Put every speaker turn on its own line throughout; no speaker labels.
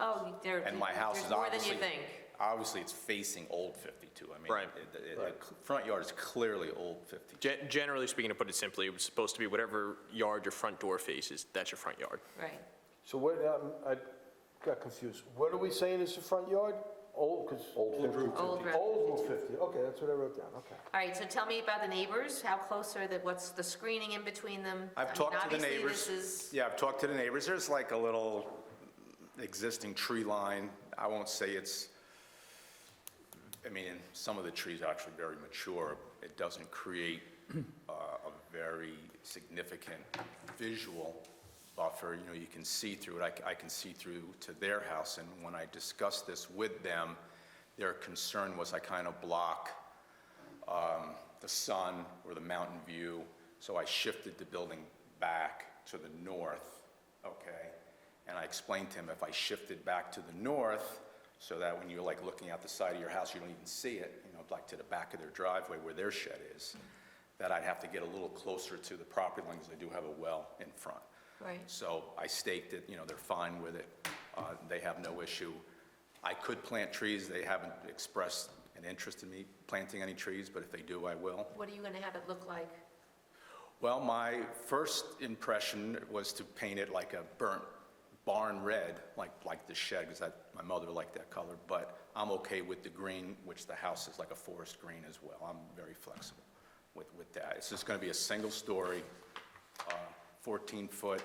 Oh, there,
And my house
there's
is
more than you
obviously,
think.
obviously, it's facing Old 52. I mean,
Right.
it- it- The front yard is clearly Old 52.
Gen- Generally speaking, to put it simply, it's supposed to be whatever yard your front door faces, that's your front yard.
Right.
So what, um, I got confused. What are we saying is the front yard? Old, because. Old Route
Old Route
Old Route 50, okay, that's what I wrote down, okay.
All right, so tell me about the neighbors, how close are the, what's the screening in between them? I
I've
mean,
talked to the neighbors.
Obviously, this is,
Yeah, I've talked to the neighbors. There's like a little existing tree line. I won't say it's, I mean, and some of the trees are actually very mature. It doesn't create uh, a very significant visual buffer. You know, you can see through it. I c- I can see through to their house. And when I discussed this with them, their concern was I kind of block the sun or the mountain view, so I shifted the building back to the north, okay? And I explained to him, if I shifted back to the north, so that when you're like looking out the side of your house, you don't even see it, you know, like to the back of their driveway where their shed is, that I'd have to get a little closer to the property line, because I do have a well in front.
Right.
So I staked it, you know, they're fine with it, uh, they have no issue. I could plant trees, they haven't expressed an interest in me planting any trees, but if they do, I will.
what are you gonna have it look like?
Well, my first impression was to paint it like a burnt barn red, like, like the shed, because that, my mother liked that color, but I'm okay with the green, which the house is like a forest green as well. I'm very flexible with, with that. It's just gonna be a single story, uh, 14-foot,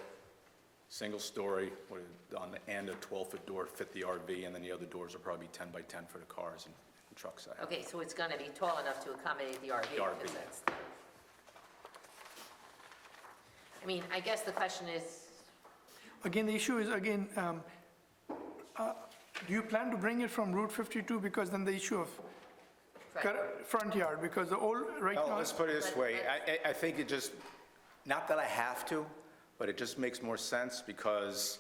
single story, with, on the end, a 12-foot door to fit the RV, and then the other doors will probably be 10 by 10 for the cars and trucks I have.
Okay, so it's gonna be tall enough to accommodate the RV?
The RV.
because that's- I mean, I guess the question is,
Again, the issue is, again, um, uh, do you plan to bring it from Route 52? Because then the issue of cor- front yard, because the old, right
Well,
now,
Oh, let's put it this
But-
way, I, I- I think it just, not that I have to, but it just makes more sense because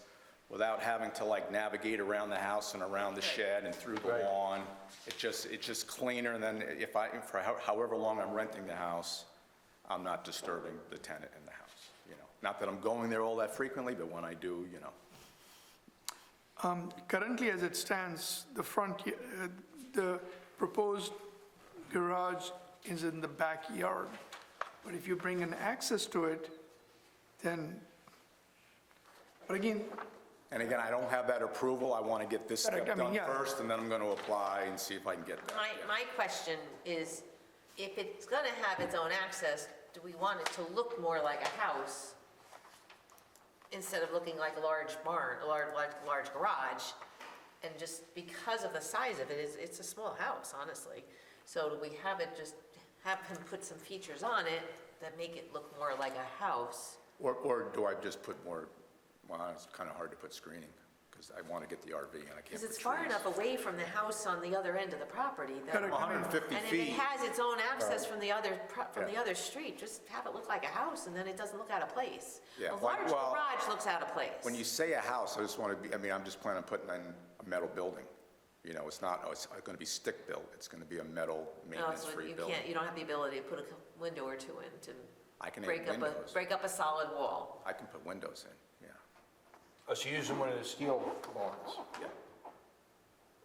without having to like navigate around the house and around the shed and through the lawn, it just, it's just cleaner than if I, for how- however long I'm renting the house, I'm not disturbing the tenant in the house, you know? Not that I'm going there all that frequently, but when I do, you know.
um, currently as it stands, the front, y- uh, the proposed garage is in the backyard. But if you bring an access to it, then, but again,
And again, I don't have that approval, I want to get this
Correct,
step
I mean,
done
yeah.
first, and then I'm going to apply and see if I can get that.
my, my question is, if it's gonna have its own access, do we want it to look more like a house instead of looking like a large barn, a large, large, large garage? And just because of the size of it, it's, it's a small house, honestly. So do we have it just, have him put some features on it that make it look more like a house?
Or, or do I just put more, well, it's kind of hard to put screening, because I want to get the RV and I can't put trees.
Because it's far enough away from the house on the other end of the property that.
Correct.
150
And if it
feet,
has its own access from the other, pro- from the
Yeah.
other street, just have it look like a house, and then it doesn't look out of place.
Yeah,
A
like-
large
well,
garage looks out of place.
when you say a house, I just want to be, I mean, I'm just planning on putting in a metal building. You know, it's not, oh, it's going to be stick-built, it's going to be a metal
No, it's when
maintenance-free
Oh, You
building.
can't, you don't have the ability to put a co- window or two in to
I can add
break up a,
windows.
break up a solid wall.
I can put windows in, yeah.
Oh, so you're using one of the steel barns?
Yeah.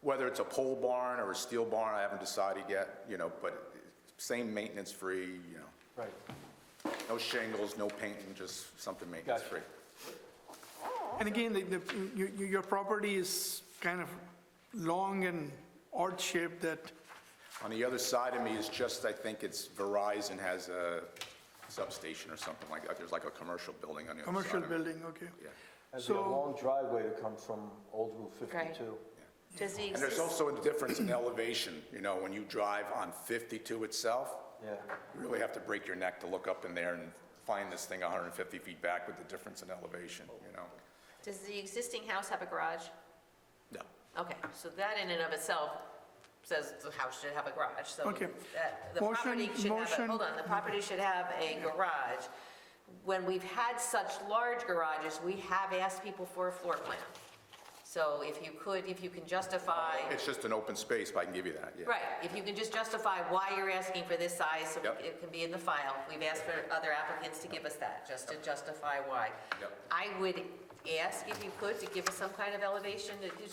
Whether it's a pole barn or a steel barn, I haven't decided yet, you know, but same maintenance-free, you know,
Right.
no shingles, no painting, just something maintenance-free.
and again, the, the, you- you- your property is kind of long and odd shaped that
On the other side of me is just, I think it's Verizon has a substation or something like that. There's like a commercial building on the other side.
commercial
of it.
building, okay?
Yeah.
That'd be a
So-
long driveway to come from Old Route
Right.
52.
Does the
And there's
exist-
also a difference in elevation, you know, when you drive on 52 itself,
Yeah,
you really have to break your neck to look up in there and find this thing 150 feet back with the difference in elevation, you know?
Does the existing house have a garage?
No.
Okay, so that in and of itself says the house should have a garage, so
Okay.
that- the
Motion-
property should have, a-
motion-
hold on, the property should have a garage. When we've had such large garages, we have asked people for a floor plan. So if you could, if you can justify,
It's just an open space, but I can give you that, yeah.
right, if you can just justify why you're asking for this size, so
Yep.
it can be in the file. We've asked for other applicants to give us that, just to justify why.
Yep.
I would ask if you could to give us some kind of elevation, to-